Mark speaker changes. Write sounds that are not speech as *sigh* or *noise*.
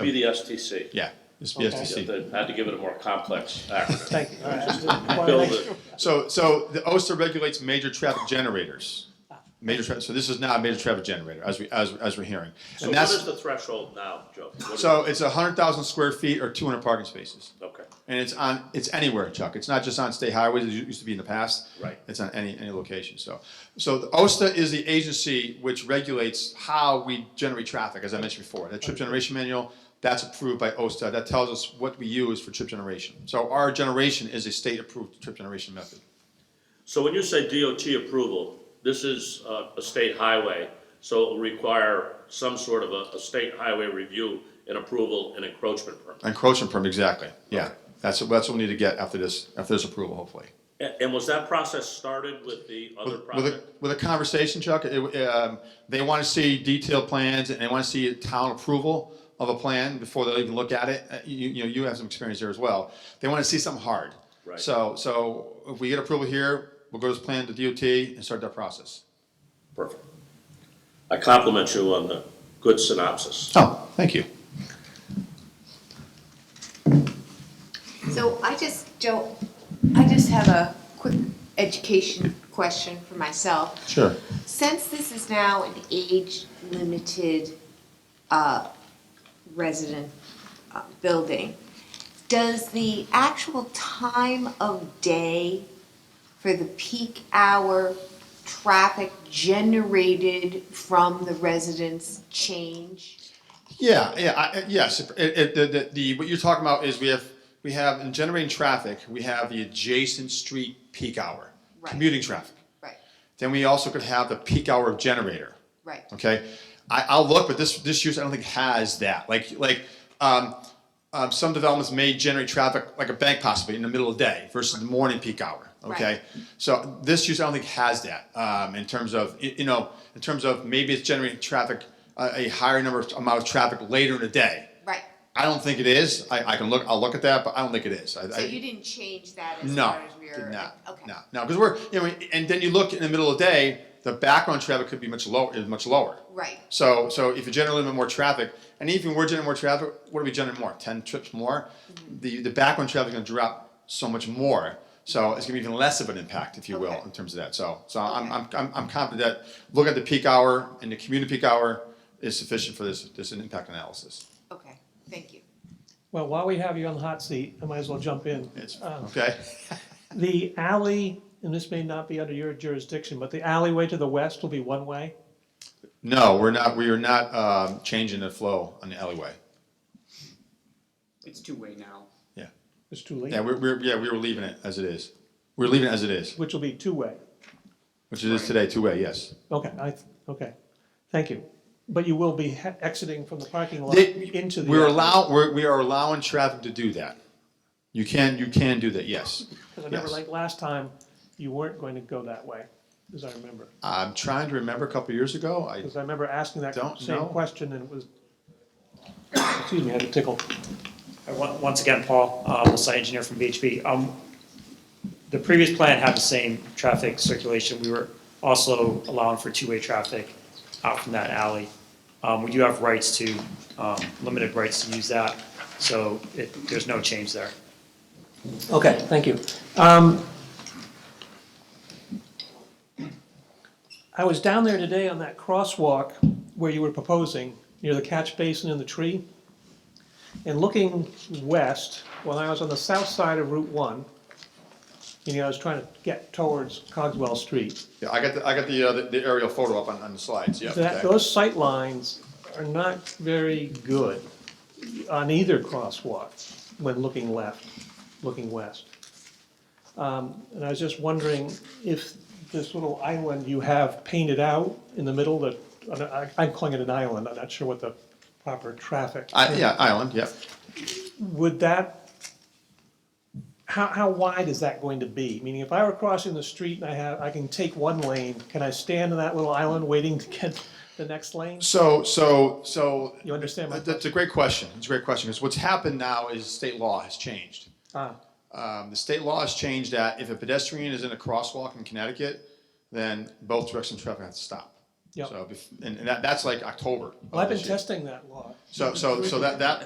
Speaker 1: It'd be the STC.
Speaker 2: Yeah, it's
Speaker 1: They
Speaker 2: BSTC.
Speaker 1: had to give it a more complex acronym.
Speaker 3: Thank you, all right. I just wanted to
Speaker 1: Build
Speaker 3: make
Speaker 1: it.
Speaker 3: sure.
Speaker 2: So, so the OSTR regulates major traffic generators. Major, tra- so this is not a major traffic generator, as we, as, as we're hearing.
Speaker 1: So
Speaker 2: And
Speaker 1: what is
Speaker 2: that's,
Speaker 1: the threshold now, Joe? What is-
Speaker 2: so it's hundred thousand square feet or two hundred parking spaces.
Speaker 1: Okay.
Speaker 2: And it's on, it's anywhere, Chuck. It's not just on state highways, it used to be in the past.
Speaker 1: Right.
Speaker 2: It's on any, any location, so. So the OSTA is the agency which regulates how we generate traffic, as I mentioned before. That trip generation manual, that's approved by OSTA. That tells us what we use for trip generation. So our generation is a state-approved trip generation method.
Speaker 1: So when you say DOT approval, this is uh, a state highway, so it'll require some sort of a, a state highway review and approval and encroachment permit.
Speaker 2: Encroachment permit, exactly, yeah. That's, that's what we need to get after this, after this approval, hopefully.
Speaker 1: And, and was that process started with the other
Speaker 2: With a,
Speaker 1: project?
Speaker 2: with a conversation, Chuck, it, um, they want to see detailed plans and they want to see a town approval of a plan before they'll even look at it. Uh, You, you know, you have some experience there as well. They want to see something hard.
Speaker 1: Right.
Speaker 2: So, so if we get approval here, we'll go to this plan to DOT and start that process.
Speaker 1: Perfect. I compliment you on the good synopsis.
Speaker 2: Oh, thank you.
Speaker 4: So I just, Joe, I just have a quick education question for myself.
Speaker 2: Sure.
Speaker 4: Since this is now an age-limited uh, resident uh, building, does the actual time of day for the peak hour traffic generated from the residents change?
Speaker 2: Yeah, yeah, I, I- yes, it, it, the, the, the, what you're talking about is we have, we have, in generating traffic, we have the adjacent street peak hour,
Speaker 4: Right.
Speaker 2: commuting traffic.
Speaker 4: Right,
Speaker 2: Then we also could have the peak hour of generator.
Speaker 4: right.
Speaker 2: Okay, I, I'll look, but this this use I don't think has that. Like like um, um, some developments may generate traffic like a bank possibly in the middle of the day versus the morning peak hour. Okay,
Speaker 4: Right.
Speaker 2: so this use I don't think has that um, in terms of y- you know in terms of maybe it's generating traffic uh, a higher number of, amount of traffic later in the day.
Speaker 4: Right.
Speaker 2: I don't think it is. I, I can look. I'll look at that, but I don't think it is. I,
Speaker 4: So
Speaker 2: I,
Speaker 4: you didn't change that as
Speaker 2: no,
Speaker 4: far as we
Speaker 2: did
Speaker 4: were?
Speaker 2: not.
Speaker 4: Okay.
Speaker 2: No, no, because we're you know, and then you look in the middle of the day, the background traffic could be much lower. Is much lower.
Speaker 4: Right.
Speaker 2: So so if you generate a little bit more traffic, and even we're generating more traffic, what are we generating more? Ten trips more.
Speaker 4: Mm-hmm.
Speaker 2: The the background traffic is going to drop so much more. So it's going to be even less of an impact, if you will,
Speaker 4: Mm-hmm. Okay.
Speaker 2: in terms of that. So so I'm,
Speaker 4: Okay.
Speaker 2: I'm I'm I'm confident that look at the peak hour and the community peak hour is sufficient for this this impact analysis.
Speaker 4: Okay, thank you.
Speaker 3: Well, while we have you on the hot seat, I might as well jump in.
Speaker 2: It's
Speaker 4: Oh.
Speaker 3: Um,
Speaker 2: okay.
Speaker 3: The alley, and this may not be under your jurisdiction, but the alleyway to the west will be one-way?
Speaker 2: No, we're not. We are not um, changing the flow on the alleyway.
Speaker 5: It's two-way now.
Speaker 2: Yeah.
Speaker 3: It's too late.
Speaker 2: Yeah, we're, we're, yeah, we were leaving it as it is. We're leaving it as it is,
Speaker 3: Which will be two-way?
Speaker 2: which it is today, two-way, yes.
Speaker 3: Okay, I, okay, thank you. But you will be he- exiting from the parking lot
Speaker 2: They-
Speaker 3: into the.
Speaker 2: We're
Speaker 3: alley.
Speaker 2: allow, we're, we are allowing traffic to do that. You can, you can do that, yes.
Speaker 3: Because I remember
Speaker 2: Yes.
Speaker 3: like last time, you weren't going to go that way, as I remember.
Speaker 2: I'm trying to remember a couple of years ago, I,
Speaker 3: Because I remember asking that
Speaker 2: Don't
Speaker 3: same
Speaker 2: know.
Speaker 3: question and it was, *coughs* excuse me, I had a tickle.
Speaker 6: Uh, on- Once again, Paul, um, the site engineer from VHB. Um, The previous plan had the same traffic circulation. We were also allowing for two-way traffic out from that alley. Um, We do have rights to, um, limited rights to use that, so it- there's no change there.
Speaker 3: Okay, thank you. Um, I was down there today on that crosswalk where you were proposing, near the catch basin and the tree. And looking west, when I was on the south side of Route 1, you know, I was trying to get towards Cogswell Street.
Speaker 2: yeah, I got, the I got the, uh, the- the aerial photo up on, on the slides, yeah.
Speaker 3: That,
Speaker 2: okay.
Speaker 3: those sight lines are not very good on either crosswalk when looking left, looking west. Um, And I was just wondering if this little island you have painted out in the middle, that, uh, I- I'm calling it an island, I'm not sure what the proper traffic.
Speaker 2: I, yeah, island, yeah.
Speaker 3: Would that, how, how wide is that going to be? Meaning if I were crossing the street and I have, I can take one lane, can I stand on that little island waiting to get the next lane?
Speaker 2: So, so, so.
Speaker 3: You understand my
Speaker 2: That- That's a great question, it's a great question, because what's happened now is state law has changed.
Speaker 3: Ah,
Speaker 2: Um, the state law has changed that if a pedestrian is in a crosswalk in Connecticut, then both directions of traffic has to stop.
Speaker 3: Yep.
Speaker 2: So, bef- and, and that, that's like October. of
Speaker 3: well, I've been
Speaker 2: this year.
Speaker 3: testing that law.
Speaker 2: So, so, so that, that,